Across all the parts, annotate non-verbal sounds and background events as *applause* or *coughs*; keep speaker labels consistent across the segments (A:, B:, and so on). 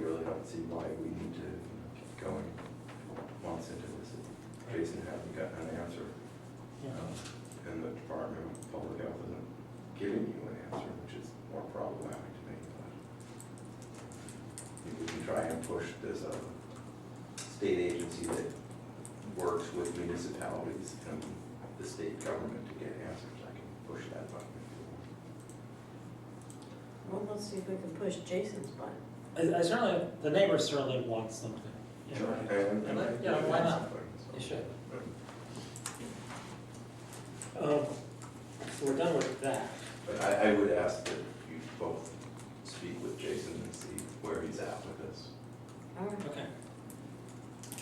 A: don't see why we need to keep going months into this. Jason hasn't gotten an answer. um, And the Department of Public Health isn't giving you an answer, which is more problematic to me. but I think We can try and push this uh, state agency that works with municipalities and the state government to get answers. I can push that button if you want.
B: Well, let's see if we can push Jason's button.
C: I, I certainly, the neighbor certainly wants something. you know.
A: Sure, and- and I-
C: And, Yeah, why not?
A: so.
C: You should. Um, so we're done with that.
A: But I, I would ask that you both speak with Jason and see where he's at with this.
B: All right.
C: Okay.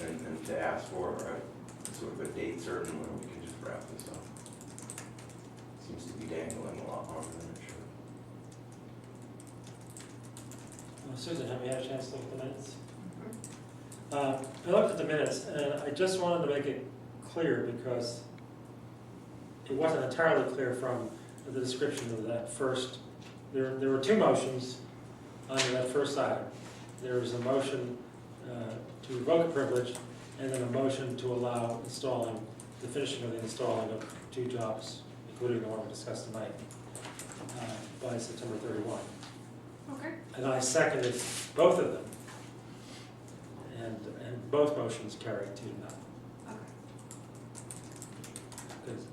A: And, and to ask for a, sort of a date certain when we can just wrap this up. Seems to be dangling a lot longer than it should.
C: Well, Uh, Susan, have you had a chance to look at the minutes? Uh, I looked at the minutes, and I just wanted to make it clear because it wasn't entirely clear from the description of that first, there, there were two motions under that first item. There was a motion uh, to revoke a privilege, and then a motion to allow installing, the finishing of the installing of two jobs, including the one we discussed tonight, uh, by September thirty-one.
D: Okay.
C: And I seconded both of them. And, and both motions carried two to none. Because,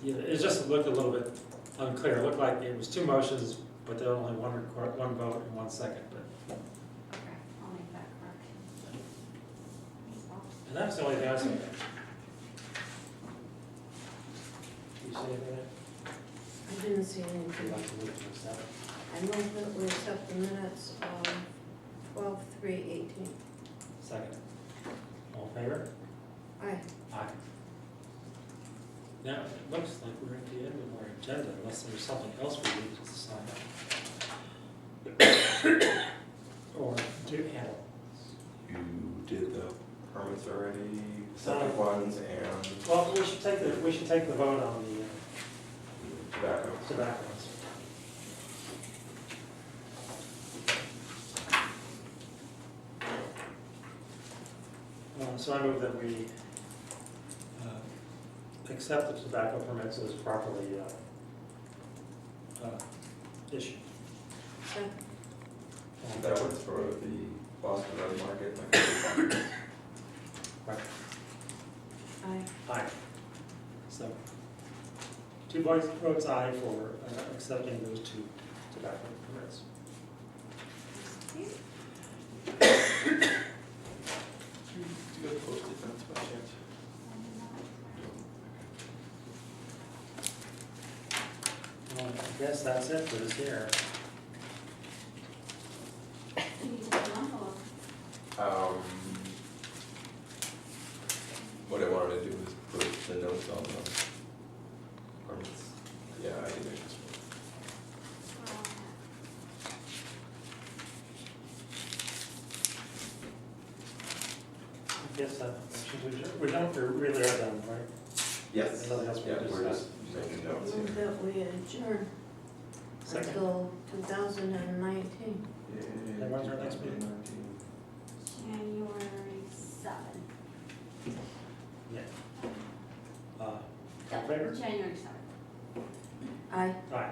C: you know, It just looked a little bit unclear. It looked like it was two motions, but there were only one record, one vote and one second. But
D: Okay, I'll make that correction. Thanks, Bob.
C: And that's the only thing I saw. Do you see anything?
B: I didn't see
C: You'd
B: anything.
C: like to move to the seven?
B: I move that we accept the minutes of twelve, three, eighteen.
C: Second. All in favor?
B: Aye.
C: Aye. Now, it looks like we're at the end of our agenda, unless there's something else we need to decide on. *coughs* Or do handle.
A: You did the permits already, septic ones and
C: Well, we should take the, we should take the vote on the
A: tobacco.
C: uh, tobaccos. Um, So I move that we uh, accept the tobacco permits as properly uh, uh, issued.
B: Second.
A: That was for the Boston Red Market, like,
C: Right,
B: Aye.
C: aye. So, two votes, votes aye for uh, accepting those two tobacco permits.
A: Do you do you have posted fence by chance?
C: Well, I guess that's it for this year.
D: You need to put an envelope.
A: Um, what I wanted to do was put the notes on the permits. Yeah, I think I just.
C: I guess that, uh, we don't, we really are done, right?
A: Yes.
C: Nothing else we
A: Yeah, we're
C: discussed.
A: just making notes
B: Move
A: here.
B: that we adjourn
C: Second,
B: until two thousand and nineteen.
C: And when's our next meeting?
D: January seventh.
C: yeah. Uh, all in favor?
D: January seventh.
B: Aye.
C: Aye. *coughs*